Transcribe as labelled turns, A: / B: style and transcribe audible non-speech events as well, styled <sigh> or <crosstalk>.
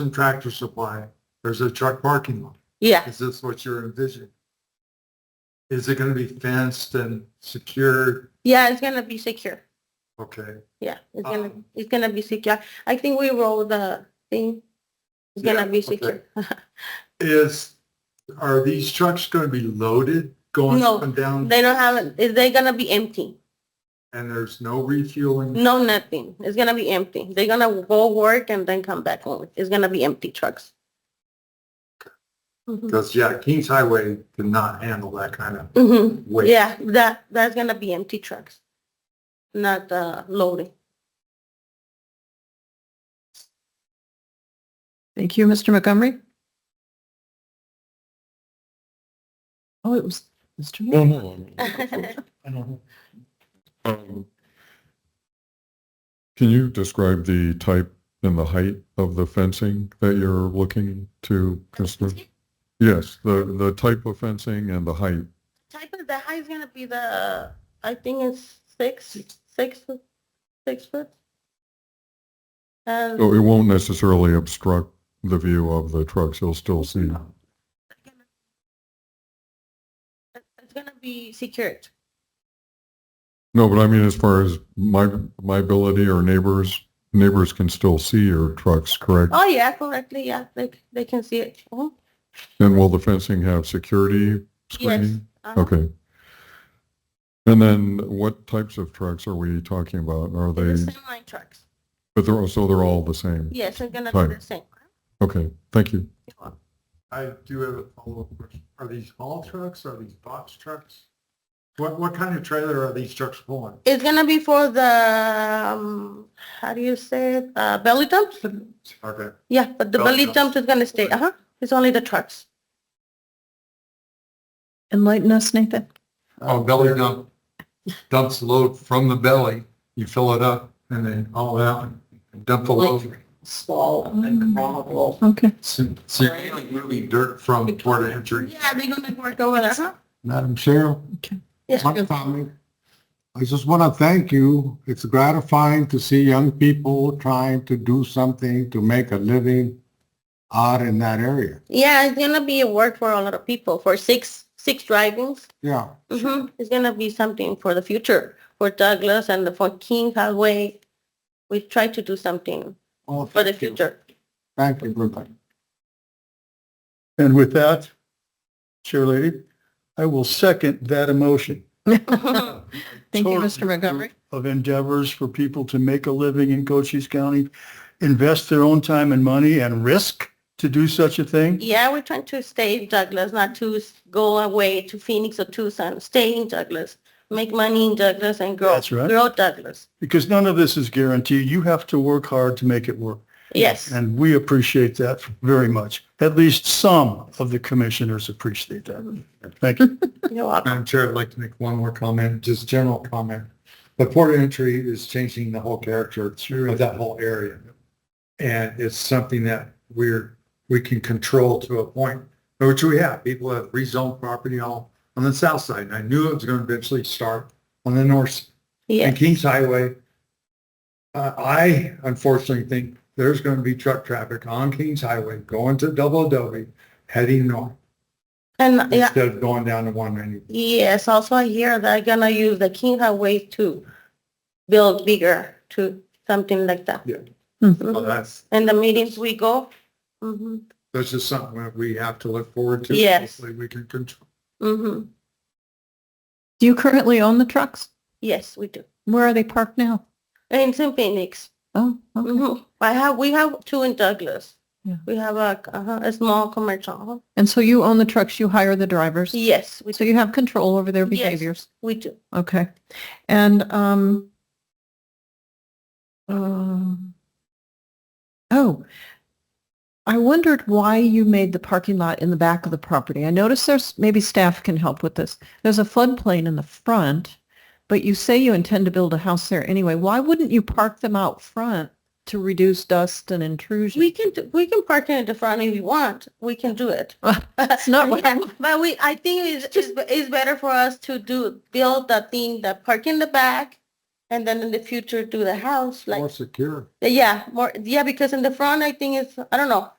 A: and Tractor Supply, there's a truck parking lot.
B: Yeah,
A: Is this what you're envisioning? Is it going to be fenced and secured?
B: yeah, it's gonna be secure.
A: Okay.
B: Yeah, it's gonna,
A: Um,
B: it's gonna be secure. I think we roll the thing. It's
A: Yeah,
B: gonna be
A: okay.
B: secure.
A: Is, are these trucks going to be loaded going
B: No,
A: up and down?
B: They don't have, is they gonna be empty?
A: And there's no refueling?
B: No, nothing. It's gonna be empty. They're gonna go work and then come back home. It's gonna be empty trucks. Mhm.
A: Because, yeah, Kings Highway cannot handle that kind of
B: Mhm.
A: weight.
B: Yeah, that, that's gonna be empty trucks, not uh, loading.
C: Thank you, Mr. Montgomery. Oh, it
B: <laughs>
C: was Mr. Mayor.
A: I don't know.
D: Um, Can you describe the type and the height of the fencing that you're looking to construct? Yes, the, the type of fencing and the height.
B: Type of the high is gonna be the, I think it's six, six, foot- six foot. Um, And
D: So Oh, it won't necessarily obstruct the view of the trucks. You'll still see.
B: it's gonna be secured.
D: No, but I mean, as far as my, my ability or neighbors, neighbors can still see your trucks, correct?
B: Oh, yeah, correctly, yeah, they, they can see it. Mhm.
D: And will the fencing have
B: Yes.
D: security screening?
B: uh-huh.
D: Okay. And then what types of trucks are we talking about? Are
B: The
D: they,
B: semi trucks,
D: but they're, all- so they're all the same?
B: yes, it's gonna
D: Fine.
B: be the same.
D: Okay, thank you.
A: I do have a follow-up question. Are these haul trucks? Are these box trucks? What, what kind of trailer are these trucks pulling?
B: It's gonna be for the, um, how do you say, it? uh, belly dumps?
A: Okay.
B: Yeah, but the
A: Belly
B: belly
A: dumps.
B: dumps is gonna stay, uh-huh, it's only the trucks.
C: Enlighten us, Nathan.
E: Um,
A: Oh, belly dump. Dumps load from the belly, you fill it up and then haul it out and dump the load.
E: small and gravel.
C: Okay.
A: So so you're mainly moving dirt from toward the entry.
B: Yeah, they're gonna work over there, huh?
F: Madam Chair,
B: Yes,
F: one comment. I just want to thank you. It's gratifying to see young people trying to do something to make a living out in that area.
B: yeah, it's gonna be a work for a lot of people, for six, six drivings.
F: Yeah,
B: Mm-hmm. It's gonna be something for the future, for Douglas and for King Highway. We try to do something
F: well,
B: for the future.
F: thank you, everybody.
G: And with that, Chair Lady, I will second that emotion.
B: Mhm.
C: <laughs> Thank you,
G: Totally
C: Mr. Montgomery.
G: Of endeavors for people to make a living in Cochise County, invest their own time and money and risk to do such a thing.
B: Yeah, we're trying to stay in Douglas, not to s- go away to Phoenix or Tucson, stay in Douglas, make money in Douglas and grow,
G: That's right.
B: grow Douglas.
G: Because none of this is guaranteed. You have to work hard to make it work.
B: Yes,
G: And we appreciate that very much. At least some of the commissioners appreciate that. Thank you.
B: <laughs> you're welcome.
A: Madam Chair, I'd like to make one more comment, just general comment. The port of entry is changing the whole character of that whole area. And it's something that we're, we can control to a point, which we have. People have rezoned property all on the south side. And I knew it was going to eventually start on the north side. and
B: Yeah,
A: Kings Highway. Uh, I unfortunately think there's going to be truck traffic on Kings Highway going to Double Adobe, heading north
B: and yeah,
A: instead of going down to one ninety.
B: yes, also I hear they're gonna use the King Highway to build bigger to something like that.
A: Yeah.
C: Mm-hmm.
B: Mhm.
A: So that's,
B: And the meetings we go. Mm-hmm,
A: that's just something that we have to look forward to.
B: Yes.
A: Hopefully we can control.
B: mm-hmm.
C: Do you currently own the trucks?
B: Yes, we do.
C: Where are they parked now?
B: In St. Phoenix.
C: Oh, okay.
B: Mhm. I have, we have two in Douglas.
C: Yeah.
B: We have a, uh a small commercial.
C: And so you own the trucks, you hire the drivers?
B: Yes, we,
C: So you have control over their
B: Yes.
C: behaviors?
B: we do.
C: Okay. And, um, um, oh, I wondered why you made the parking lot in the back of the property. I noticed there's, maybe staff can help with this. There's a floodplain in the front, but you say you intend to build a house there anyway. Why wouldn't you park them out front to reduce dust and intrusion?
B: We can, do- we can park in the front if we want. We can do it.
C: <laughs>
B: <laughs>
C: That's not what
B: Yeah, But we, I think it's, it's, it's better for us to do, build the thing, the park in the back And then in the future do the house, like,
F: more secure.
B: yeah, more, yeah, because in the front, I think it's, I don't know,